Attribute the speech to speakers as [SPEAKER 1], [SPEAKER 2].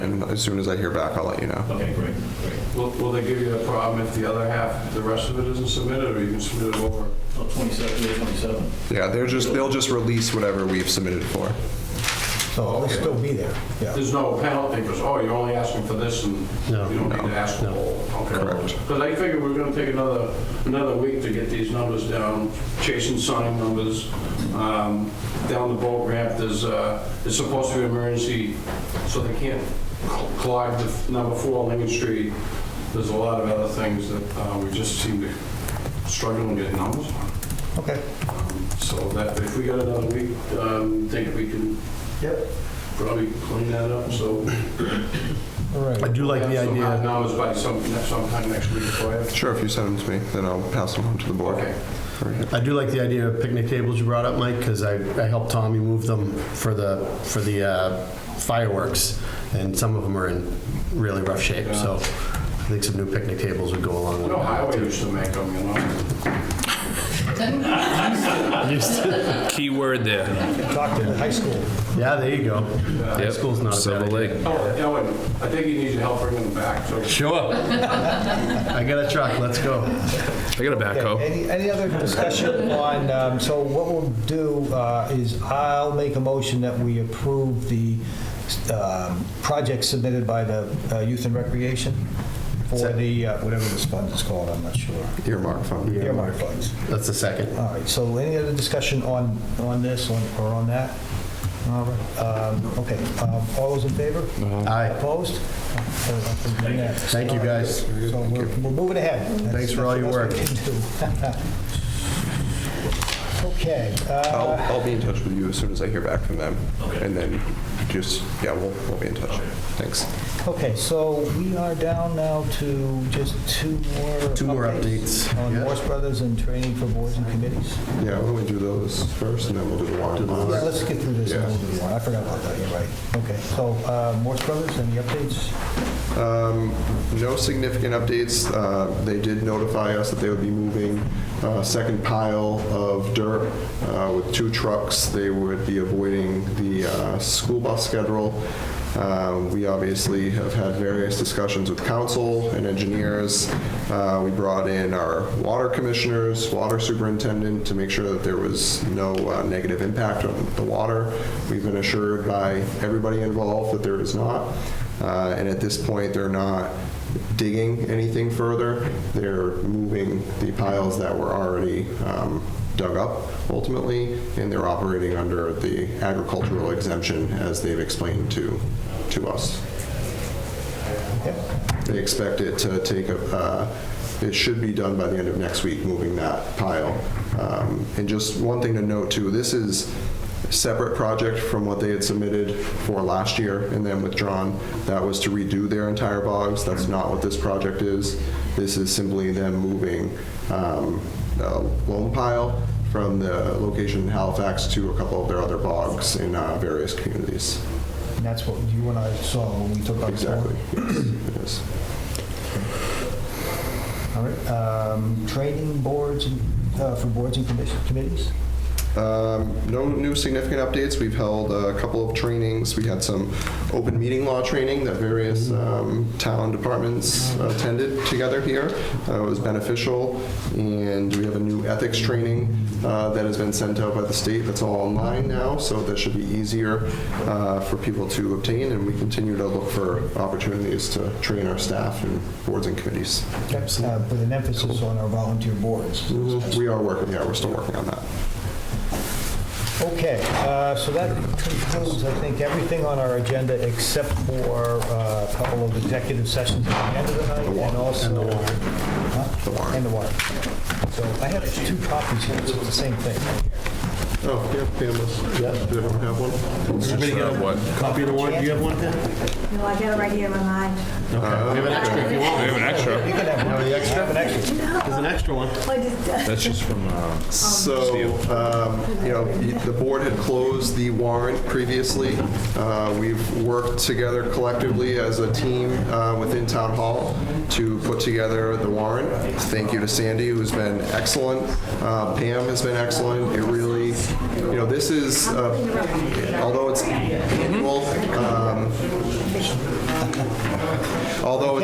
[SPEAKER 1] and as soon as I hear back, I'll let you know.
[SPEAKER 2] Okay, great, great.
[SPEAKER 3] Will, will they give you a problem if the other half, the rest of it isn't submitted, or you can submit it over?
[SPEAKER 2] Oh, 27, yeah, 27.
[SPEAKER 1] Yeah, they're just, they'll just release whatever we've submitted for.
[SPEAKER 4] So it'll still be there, yeah.
[SPEAKER 3] There's no penalty, because, oh, you're only asking for this, and you
[SPEAKER 5] No.
[SPEAKER 3] don't need to ask for
[SPEAKER 5] No.
[SPEAKER 3] all.
[SPEAKER 1] Correct.
[SPEAKER 3] Because I figured we're gonna take another, another week to get these numbers down, chasing sign numbers. Um, Down the boat ramp, there's, uh, it's supposed to be emergency, so they can't clog the f- number four on Lincoln Street. There's a lot of other things that uh, we just seem to struggle and get numbers on.
[SPEAKER 4] Okay.
[SPEAKER 3] So that, if we got another week, um, think we can
[SPEAKER 4] Yep.
[SPEAKER 3] probably clean that up, so.
[SPEAKER 4] All
[SPEAKER 5] I
[SPEAKER 4] right.
[SPEAKER 5] do like the
[SPEAKER 3] Have some hard
[SPEAKER 5] idea,
[SPEAKER 3] Numbers by some, sometime next week for you.
[SPEAKER 1] Sure, if you send them to me, then I'll pass them on to the board.
[SPEAKER 3] Okay.
[SPEAKER 5] I do like the idea of picnic tables you brought up, Mike, because I, I helped Tommy move them for the, for the uh, fireworks, and some of them are in really rough shape, so I think some new picnic tables would go along
[SPEAKER 3] You
[SPEAKER 5] with
[SPEAKER 3] know, highway
[SPEAKER 5] that.
[SPEAKER 3] used to make them, you know?
[SPEAKER 6] Key word there.
[SPEAKER 4] Talk to the high school.
[SPEAKER 5] Yeah, there you go. High
[SPEAKER 6] Yep.
[SPEAKER 5] school's not a
[SPEAKER 6] Silver
[SPEAKER 5] bad idea.
[SPEAKER 6] Lake.
[SPEAKER 3] Oh, Ellen, I think you need your help bringing them back, so.
[SPEAKER 6] Sure. I
[SPEAKER 5] I got a truck, let's go.
[SPEAKER 6] got a backhoe.
[SPEAKER 4] Any, any other discussion on, um, so what we'll do uh, is I'll make a motion that we approve the um, project submitted by the uh, Youth and Recreation for the, uh, whatever this fund is called, I'm not sure.
[SPEAKER 1] Earmark fund.
[SPEAKER 4] Earmark funds.
[SPEAKER 5] That's the second.
[SPEAKER 4] All right, so any other discussion on, on this on- or on that? All right, um, okay, um, all those in favor?
[SPEAKER 5] Aye.
[SPEAKER 4] Opposed?
[SPEAKER 5] Thank
[SPEAKER 4] Thank
[SPEAKER 5] you, guys.
[SPEAKER 4] So we're we're moving ahead. That's-
[SPEAKER 5] Thanks for all
[SPEAKER 4] that's
[SPEAKER 5] your
[SPEAKER 4] the best we can do. Okay,
[SPEAKER 1] I'll,
[SPEAKER 4] uh,
[SPEAKER 1] I'll be in touch with you as soon as I hear back from them.
[SPEAKER 2] Okay.
[SPEAKER 1] And then just, yeah, we'll, we'll be in touch. Thanks.
[SPEAKER 4] okay, so we are down now to just two more.
[SPEAKER 5] Two more updates,
[SPEAKER 4] On
[SPEAKER 5] yeah.
[SPEAKER 4] Morse Brothers and training for boards and committees.
[SPEAKER 1] Yeah, why don't we do those first and then we'll do the warrant.
[SPEAKER 4] Yeah, let's get through this and we'll do one. I forgot about that, you're right. Okay, so uh, Morse Brothers, any updates?
[SPEAKER 1] Um, No significant updates. Uh, They did notify us that they would be moving a second pile of dirt uh, with two trucks. They would be avoiding the uh, school bus schedule. Uh, We obviously have had various discussions with council and engineers. Uh, We brought in our water commissioners, water superintendent, to make sure that there was no uh, negative impact on the water. We've been assured by everybody involved that there is not. Uh, And at this point, they're not digging anything further. They're moving the piles that were already um, dug up ultimately, and they're operating under the agricultural exemption as they've explained to, to us. They expect it to take, a. uh, it should be done by the end of next week, moving that pile. Um, And just one thing to note too, this is a separate project from what they had submitted for last year and then withdrawn. That was to redo their entire bogs. That's not what this project is. This is simply them moving um, a loam pile from the location in Halifax to a couple of their other bogs in uh, various communities.
[SPEAKER 4] And that's what you and I saw when we took our tour.
[SPEAKER 1] Exactly. Yes, it is.
[SPEAKER 4] All right, um, training boards and, uh, for boards and commission- committees?
[SPEAKER 1] Um, No new significant updates. We've held a couple of trainings. We had some open meeting law training that various um, town departments attended together here. Uh, It was beneficial. And we have a new ethics training uh, that has been sent out by the state that's all online now, so that should be easier uh, for people to obtain. And we continue to look for opportunities to train our staff and boards and committees.
[SPEAKER 4] Uh, With an emphasis on our volunteer boards.
[SPEAKER 1] We are working, yeah, we're still working on that.
[SPEAKER 4] Okay, uh, so that concludes, I think, everything on our agenda except for uh, a couple of executive sessions at the end of the night and also... And the warrant. And the warrant. So I have two copies here, so it's the same thing.
[SPEAKER 1] Oh, yeah, Pamela's, yeah, they don't have one.
[SPEAKER 5] Anybody got
[SPEAKER 6] What?
[SPEAKER 5] a copy of the warrant? Do you have one, Pat?
[SPEAKER 7] No, I got it right here in my mind.
[SPEAKER 5] We have an extra if you want.
[SPEAKER 6] We have an extra.
[SPEAKER 4] You can have one.
[SPEAKER 5] the extra?
[SPEAKER 4] Have an extra.
[SPEAKER 5] There's an extra one.
[SPEAKER 7] Oh, I just-
[SPEAKER 6] That's just from, uh,
[SPEAKER 1] So, um, you know, the board had closed the warrant previously. Uh, We've worked together collectively as a team uh, within Town Hall to put together the warrant. Thank you to Sandy, who's been excellent. Uh, Pam has been excellent. It really, you know, this is, uh, although it's annual, um, Although